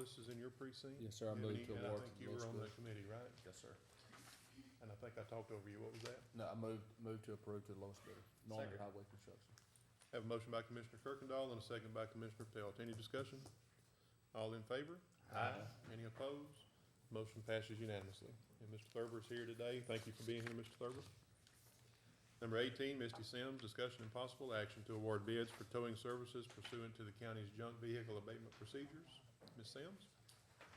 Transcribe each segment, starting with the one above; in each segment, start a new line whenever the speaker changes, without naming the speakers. Morris is in your precinct?
Yes, sir, I
Ebony,
moved to
and I
award
think
to
you were
Liz
on the
Bush.
committee, right?
Yes, sir.
And I think I talked over you. What was that?
No, I moved, moved to approve to the lowest bidder, Norman
Second.
Highway Construction.
Have a motion by Commissioner Kirkendall and a second by Commissioner Pelt. Any discussion? All in favor? Aye. Any opposed? Motion passes unanimously. And Mr. Thurber is here today. Thank you for being here, Mr. Thurber. Number eighteen, Misty Sims, discussion and possible action to award bids for towing services pursuant to the county's junk vehicle abatement procedures. Ms. Sims?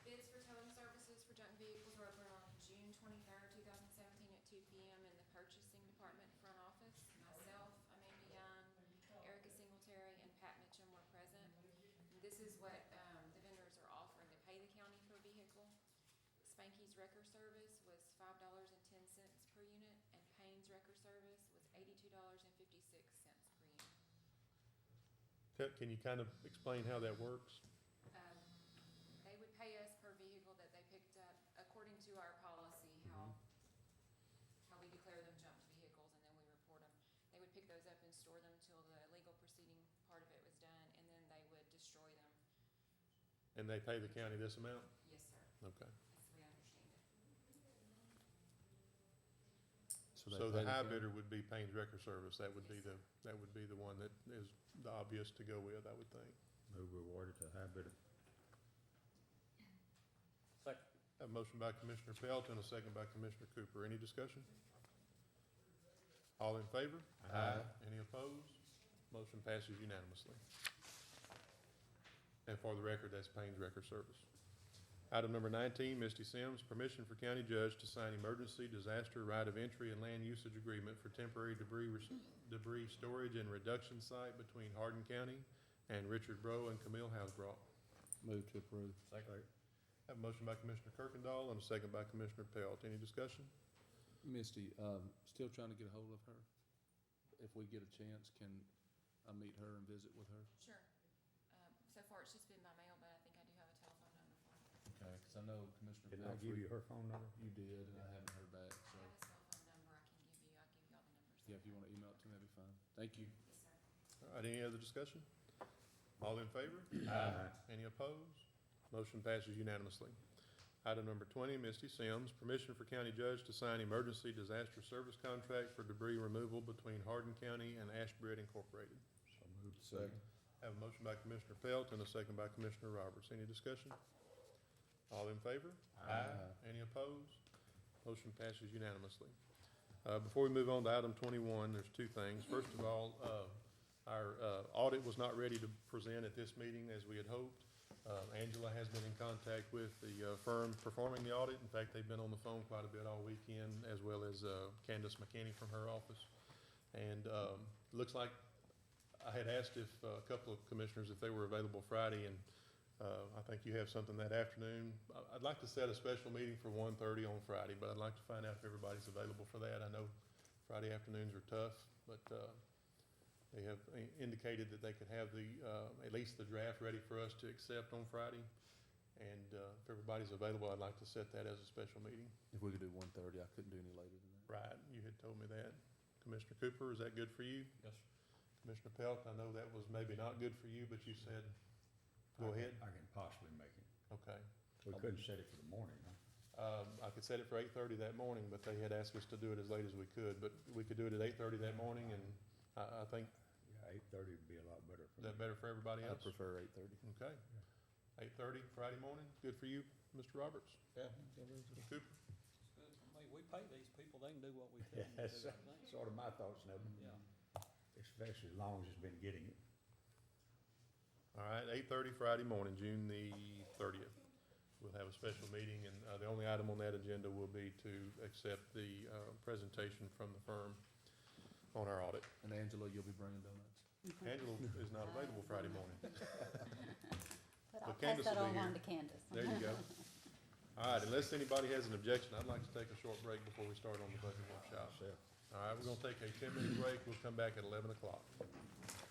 Bids for towing services for junk vehicles were open on June twenty-third, two thousand seventeen at two P M. in the purchasing department front office. Myself, Amanda Young, Erica Singletary, and Pat Mitchum were present. This is what, um, the vendors are offering to pay the county per vehicle. Spanky's Wrecker Service was five dollars and ten cents per unit, and Payne's Wrecker Service was eighty-two dollars and fifty-six cents per unit.
Ca- Can you kind of explain how that works?
um, they would pay us per vehicle that they picked up according to our policy, how,
Mm-hmm.
how we declare them junked vehicles and then we report them. They would pick those up and store them till the legal proceeding part of it was done and then they would destroy them.
And they pay the county this amount?
Yes, sir,
Okay.
as we understand it.
So
they pay
the
the
high
county?
bidder would be Payne's Record Service, that would be
Yes.
the, that would be the one that is the obvious to go with, I would think.
Move rewarded to high bidder.
Have a motion by Commissioner Pelt and a second by Commissioner Cooper, any discussion? All in favor?
Aye.
Any opposed? Motion passes unanimously. And for the record, that's Payne's Record Service. Item number nineteen, Misty Sims, permission for county judge to sign emergency disaster right of entry and land usage agreement for temporary debris, res- debris storage and reduction site between Hardin County and Richard Bro and Camille Housebrook.
Moved to approve.
Second.
Have a motion by Commissioner Kirkendall and a second by Commissioner Pelt. Any discussion?
Misty, um, still trying to get a hold of her? If we get a chance, can I meet her and visit with her?
Sure. Um, so far it's just been by mail, but I think I do have a telephone number for him.
Okay, cause I know Commissioner
Did I give you her phone number?
You did, and I haven't heard back,
I
so,
have his cell phone number I can give you. I'll give you all the numbers.
yeah, if you wanna email it to me, that'd be fine. Thank you.
Yes, sir.
All right, any other discussion? All in favor?
Aye.
Any opposed? Motion passes unanimously. Item number twenty, Misty Sims, permission for county judge to sign emergency disaster service contract for debris removal between Hardin County and Ashbred Incorporated.
So moved.
Second.
Have a motion by Commissioner Pelt and a second by Commissioner Roberts. Any discussion? All in favor? Any opposed? Motion passes unanimously. Uh, Before we move on to item twenty-one, there's two things. First of all, uh, our uh, audit was not ready to present at this meeting as we had hoped. Uh, Angela has been in contact with the uh, firm performing the audit. In fact, they've been on the phone quite a bit all weekend, as well as uh, Candace McKinney from her office. And um, looks like I had asked if, uh, a couple of commissioners if they were available Friday, and uh, I think you have something that afternoon. I- I'd like to set a special meeting for 1:30 on Friday, but I'd like to find out if everybody's available for that. I know Friday afternoons are tough, but uh, they have i- indicated that they could have the, uh, at least the draft ready for us to accept on Friday. And uh, if everybody's available, I'd like to set that as a special meeting.
If we could do one thirty, I couldn't do any later than that.
Right, you had told me that. Commissioner Cooper, is that good for you?
Yes,
Commissioner Pelt, I know that was maybe not good for you, but you said, go ahead.
I can possibly make it.
Okay.
We couldn't set it for the morning, huh?
Um, I could set it for eight-thirty that morning, but they had asked us to do it as late as we could, but we could do it at eight-thirty that morning, and I, I think
Yeah, eight thirty would be a lot better for
is
me.
that better for everybody
I
else?
prefer eight thirty.
Okay. Eight-thirty Friday morning, good for you, Mr. Roberts,
Yeah,
Mr. Cooper?
I mean, we pay these people, they can do what we tell them to do, I
Yes.
think.
Sort of my thoughts now,
Yeah,
especially as long as it's been getting it.
All right, eight-thirty Friday morning, June the thirtieth. We'll have a special meeting, and, uh, the only item on that agenda will be to accept the, uh, presentation from the firm on our audit.
And Angela, you'll be bringing donuts?
Angela is not available Friday morning.
But
But
I'll pass
Candace
that
will be
all on
here.
to Candace.
There you go. All right, unless anybody has an objection, I'd like to take a short break before we start on the budget workshop.
Myself.
All right, we're gonna take a ten-minute break. We'll come back at eleven o'clock. Oh,